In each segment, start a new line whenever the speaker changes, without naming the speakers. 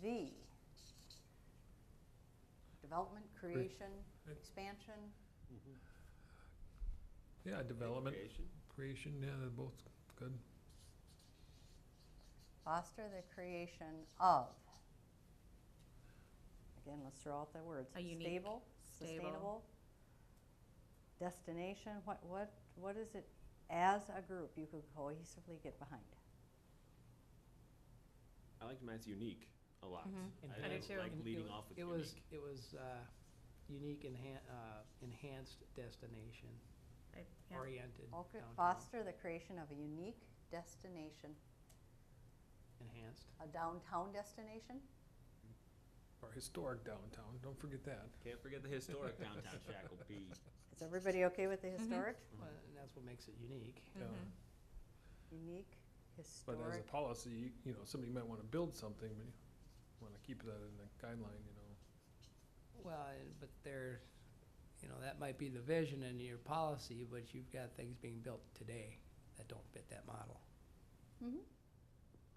the development, creation,
Right.
expansion,
Yeah, development,
Creation.
creation, yeah, they're both good.
foster the creation of. Again, let's throw out the words.
A unique,
Stable,
stable-
sustainable. Destination, what, what, what is it as a group you could cohesively get behind?
I liked mine's unique a lot.
Mhm.
And
I do
like-
too.
Like
And it
leading
wa-
off with
It was,
unique.
it was uh, unique enhan- uh, enhanced destination
I- yeah.
oriented
Okay,
downtown.
Foster the creation of a unique destination,
Enhanced.
Mm-hmm.
a downtown destination?
Our historic downtown, don't forget that.
Can't forget the historic downtown Shakopee.
Is everybody okay with the
Mm-hmm.
historic?
Well, and that's what makes it unique.
Yeah.
Mhm.
Unique,
Um, But as a
historic,
policy, you, you know, somebody might wanna build something, but you wanna keep that in the guideline, you know.
Well, and- but there, you know, that might be the vision in your policy, but you've got things being built today that don't fit that model.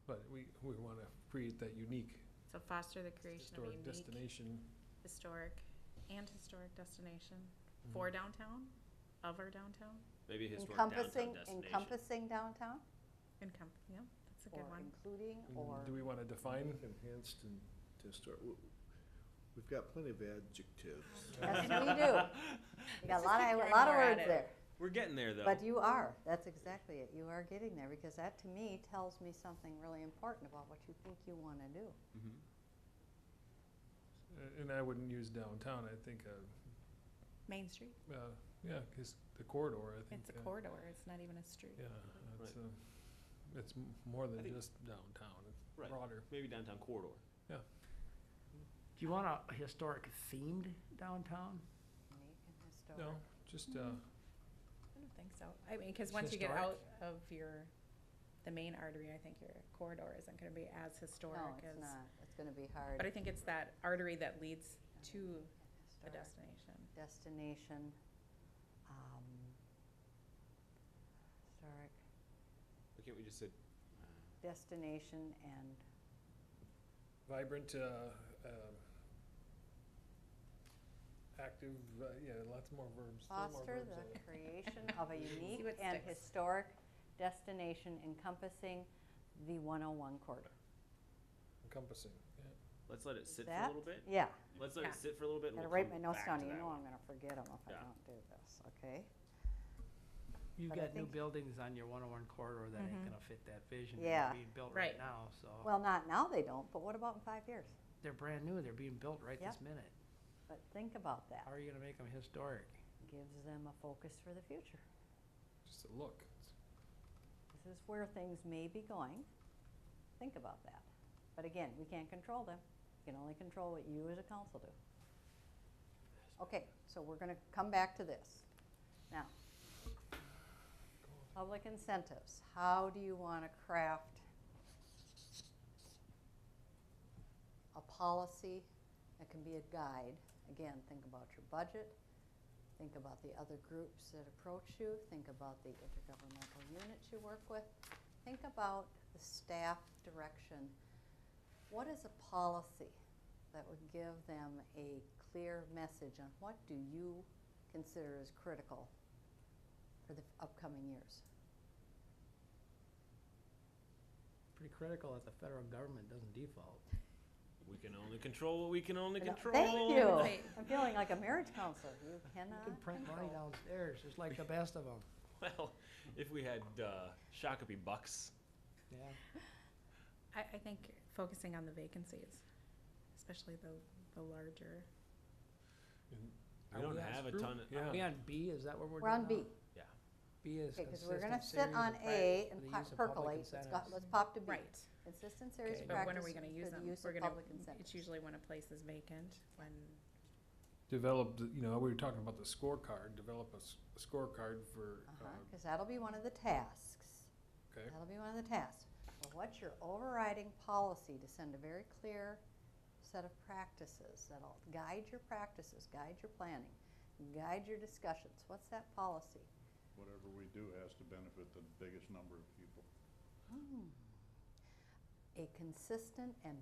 But we, we wanna create that unique
So foster the creation of a
historic
unique,
destination.
historic, and historic destination
Mm-hmm.
for downtown, of our downtown,
Maybe a historic downtown
encompassing,
destination.
encompassing downtown?
and com- yeah, that's a
Or
good one.
including,
Mm,
or?
Do we wanna define?
Enhanced and to start, w- we've got plenty of adjectives.
Yes, we do. You got a lot of, a
Throwing
lot of
more at
words
it.
there,
We're getting there though.
but you are, that's exactly it, you are getting there, because that to me tells me something really important about what you think you wanna do.
Mhm.
Mm-hmm.
Uh, And I wouldn't use downtown, I think, uh,
Main Street,
uh, yeah, 'cause the corridor, I think.
it's a Mm-hmm.
uh,
corridor, it's not even a street.
Yeah, it's, uh, it's m- more than
think-
just downtown, it's
Right.
broader.
Maybe downtown corridor.
Do you want a historic themed downtown?
Unique and historic.
No, just, uh,
Mm. I don't think so. I mean, because once you get out
Historic?
of your, the main artery, I think your corridor isn't gonna be as historic
No,
as.
it's not, it's gonna be hard.
But I think it's that artery that leads to a
Historic
destination.
Destination, um, historic
Why can't we just uh, say?
destination and
vibrant, uh, um, active, uh, yeah, lots more verbs. throw more
Foster
verbs uh,
the
at it.
creation of a unique
what
and
sticks.
historic destination encompassing the 101 corridor.
Encompassing, yeah.
Let's let it sit for a
That-
little bit.
Yeah,
Let's let
Yeah.
it sit for a little bit. and
gotta
we'll
write my
come
notes
back
down,
to
you
that
know
one.
I'm gonna forget them if I
Yeah.
don't do this, okay?
You've
But I
got new
think- Mm-hmm.
buildings on your one-on-one corridor that
Mhm.
ain't gonna fit that vision.
Yeah.
They're being built right
Right.
now, so.
Well, not now they don't, but what about in five years?
They're brand new, they're being built right
Yeah.
this minute.
But think about that,
How are you gonna make them historic?
gives them a focus for the future.
Just a look.
This is where things may be going, think about that. But again, we can't control them, we can only control what you as a council do. Okay, so we're gonna come back to this. Now, public incentives, how do you wanna craft a policy that can be a guide? Again, think about your budget, think about the other groups that approach you, think about the intergovernmental units you work with, think about the staff direction. What is a policy that would give them a clear message on what do you consider as critical for the upcoming years?
Pretty critical that the federal government doesn't default.
We can only control what we can only
You know,
control.
Thank you.
Right.
I'm feeling like a marriage counselor. You
You can
cannot
print money
control.
downstairs, just like the best of them,
Well, if we had uh, Shakopee bucks,
yeah.
I, I think focusing on the vacancies, especially the, the larger.
And
we
are
don't
on
have a
screw?
ton of.
Are we
Yeah,
on B, is that what we're doing
We're on B.
now? B is
Okay, because we're gonna sit
consistent series
on
of
A
prac- for
and
the
po- percolate.
use of public
Let's go-
incentives.
Let's pop to B.
Right.
Consistent series
Okay.
of
But when
practice
are we
for
gonna use them?
the use
We're
of
gonna-
public incentives.
It's usually when a place is vacant, when,
Develop, the- you know, we were talking about the scorecard, develop a s- a scorecard for, uh,
Because Uh-huh, that'll be one of the tasks.
okay,
That'll be one of the tasks. Well, what's your overriding policy to send a very clear set of practices that'll guide your practices, guide your planning, guide your discussions? What's that policy?
Whatever we do has to benefit the biggest number of people.
A consistent and